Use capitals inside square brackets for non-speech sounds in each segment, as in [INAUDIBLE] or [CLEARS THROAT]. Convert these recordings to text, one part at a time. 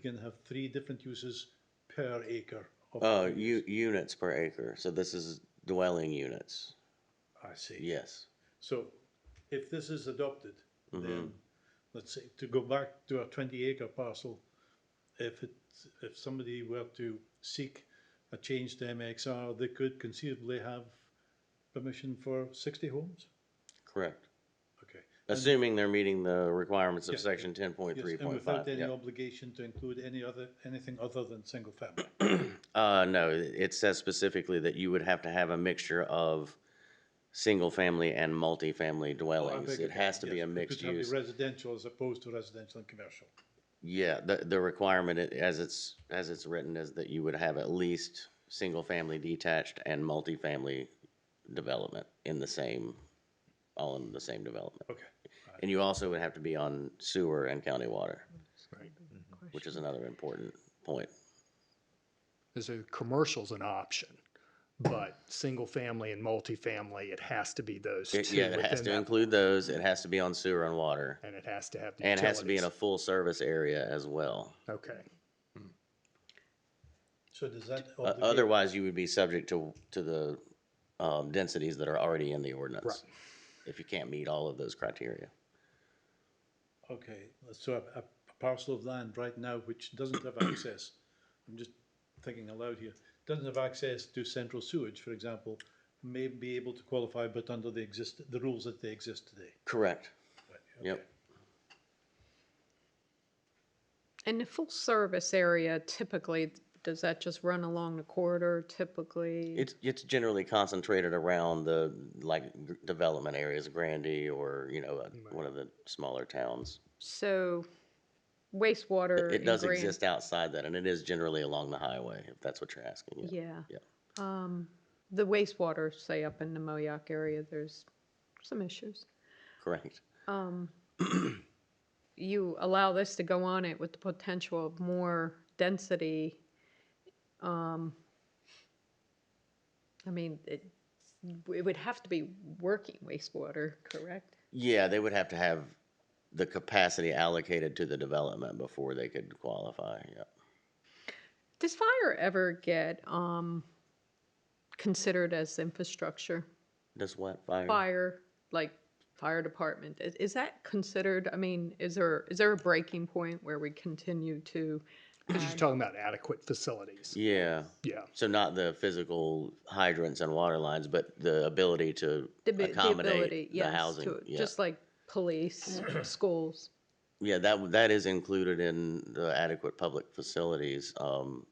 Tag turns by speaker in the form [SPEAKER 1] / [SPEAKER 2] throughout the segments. [SPEAKER 1] can have three different uses per acre. of
[SPEAKER 2] Oh,
[SPEAKER 1] land.
[SPEAKER 2] u- units per acre, so this is dwelling units,
[SPEAKER 1] I see.
[SPEAKER 2] yes.
[SPEAKER 1] So if this is adopted,
[SPEAKER 2] Mm-hmm.
[SPEAKER 1] then, let's say, to go back to a twenty acre parcel, if it, if somebody were to seek a change to MXR, they could conceivably have permission for sixty homes?
[SPEAKER 2] Correct,
[SPEAKER 1] Okay.
[SPEAKER 2] assuming they're meeting the requirements
[SPEAKER 1] Yeah,
[SPEAKER 2] of
[SPEAKER 1] yeah.
[SPEAKER 2] section ten point
[SPEAKER 1] Yes,
[SPEAKER 2] three
[SPEAKER 1] and
[SPEAKER 2] point five,
[SPEAKER 1] without any
[SPEAKER 2] yeah.
[SPEAKER 1] obligation to include any other, anything other than single family.
[SPEAKER 2] [CLEARS THROAT] Uh, no, it it says specifically that you would have to have a mixture of single-family and
[SPEAKER 1] Oh,
[SPEAKER 2] multifamily dwellings. It has to be a mixed
[SPEAKER 1] Could have
[SPEAKER 2] use.
[SPEAKER 1] the residential as opposed to residential and commercial.
[SPEAKER 2] Yeah, the, the requirement i- as it's, as it's written is that you would have at least single-family detached and multifamily development in the same, all in the same development.
[SPEAKER 1] Okay.
[SPEAKER 2] And you also would have to be on sewer and county water, which is another important point.
[SPEAKER 3] is a commercial's an option, but single family and multifamily, it has to be those two
[SPEAKER 2] It- Yeah, it has
[SPEAKER 3] within
[SPEAKER 2] to
[SPEAKER 3] that,
[SPEAKER 2] include those. It has to be on sewer and water.
[SPEAKER 3] and it has to have the
[SPEAKER 2] And it has to be in a
[SPEAKER 3] utilities.
[SPEAKER 2] full-service area as well.
[SPEAKER 3] Okay,
[SPEAKER 1] So does that
[SPEAKER 2] O-
[SPEAKER 1] obligate?
[SPEAKER 2] Uh, Otherwise, you would be subject to, to the, um, densities that are already in the ordinance.
[SPEAKER 3] Right.
[SPEAKER 2] If you can't meet all of those criteria.
[SPEAKER 1] Okay, so a, a parcel of land right now which doesn't have access, [COUGHS] I'm just thinking aloud here, doesn't have access to central sewage, for example, may be able to qualify, but under the exist, the rules that they exist today.
[SPEAKER 2] Correct.
[SPEAKER 1] Right,
[SPEAKER 2] Yep.
[SPEAKER 4] And the full service area typically, does that just run along the corridor typically?
[SPEAKER 2] It's, it's generally concentrated around the, like, g- development areas, Grandy or, you know, uh, one of the smaller towns.
[SPEAKER 4] So wastewater.
[SPEAKER 2] It
[SPEAKER 4] and
[SPEAKER 2] does
[SPEAKER 4] gran-
[SPEAKER 2] exist outside that, and it is generally along the highway, if that's what you're asking.
[SPEAKER 4] Yeah.
[SPEAKER 2] Yeah.
[SPEAKER 4] Um, the wastewater, say up in the Moayak area, there's some issues.
[SPEAKER 2] Correct. [CLEARS THROAT]
[SPEAKER 4] Um, you allow this to go on it with the potential of more density. Um, I mean, it, it would have to be working wastewater, correct?
[SPEAKER 2] Yeah, they would have to have the capacity allocated to the development before they could qualify, yeah.
[SPEAKER 4] Does fire ever get um, considered as infrastructure?
[SPEAKER 2] Does what, fire?
[SPEAKER 4] Fire, like fire department, is, is that considered? I mean, is there is there a breaking point where we continue to?
[SPEAKER 3] because you're
[SPEAKER 4] add-
[SPEAKER 3] talking about adequate facilities.
[SPEAKER 2] Yeah,
[SPEAKER 3] Yeah,
[SPEAKER 2] so not the physical hydrants and water lines, but the ability to
[SPEAKER 4] the, abi- the ability,
[SPEAKER 2] accommodate the
[SPEAKER 4] yes,
[SPEAKER 2] housing,
[SPEAKER 4] to,
[SPEAKER 2] yeah.
[SPEAKER 4] just like police,
[SPEAKER 2] [CLEARS THROAT]
[SPEAKER 4] schools.
[SPEAKER 2] Yeah, that, w- that is included in the adequate public facilities, um,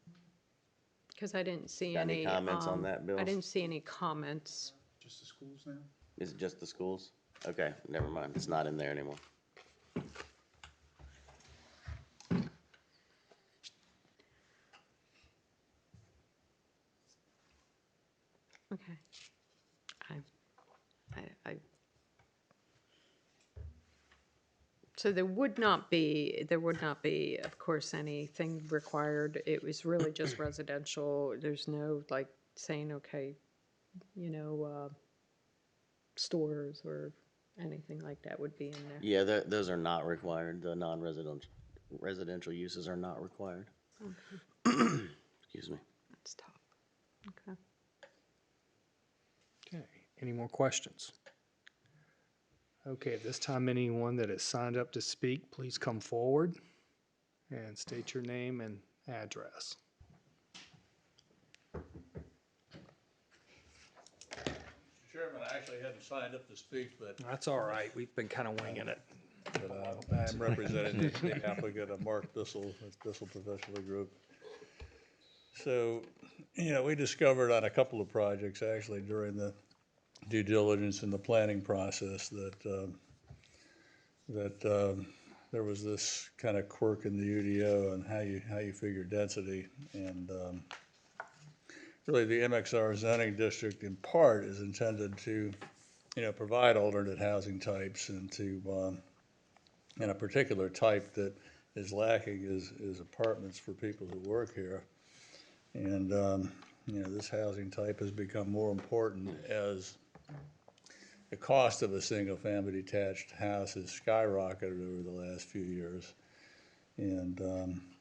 [SPEAKER 4] Because I didn't see
[SPEAKER 2] Got any
[SPEAKER 4] any
[SPEAKER 2] comments on
[SPEAKER 4] um,
[SPEAKER 2] that, Bill?
[SPEAKER 4] I didn't see any comments.
[SPEAKER 1] Just the schools now?
[SPEAKER 2] is it just the schools? Okay, never mind, it's not in there anymore.
[SPEAKER 4] Okay. I, I, I. So there would not be, there would not be, of course, anything required. It was really just residential. There's no like saying, okay, you know, uh, stores or anything like that would be in there.
[SPEAKER 2] Yeah, tho- those are not required, the non-residential, residential uses are not required. [CLEARS THROAT] Excuse me.
[SPEAKER 4] That's tough. Okay.
[SPEAKER 3] okay, any more questions? Okay, at this time, anyone that has signed up to speak, please come forward and state your name and address.
[SPEAKER 5] Chairman, I actually hadn't signed up to speak, but
[SPEAKER 3] That's all right, we've been kind of winging it.
[SPEAKER 5] uh, I'm representing the- the applicant of Mark Bissell, with Bissell Professional Group. So, you know, we discovered on a couple of projects, actually, during the due diligence and the planning process, that, um, that um, there was this kind of quirk in the UDO and how you, how you figure density. And um, really, the MXR zoning district in part is intended to, you know, provide alternate housing types and to, um, and a particular type that is lacking is, is apartments for people who work here. And, um, you know, this housing type has become more important as the cost of a single-family detached house has skyrocketed over the last few years. And, um,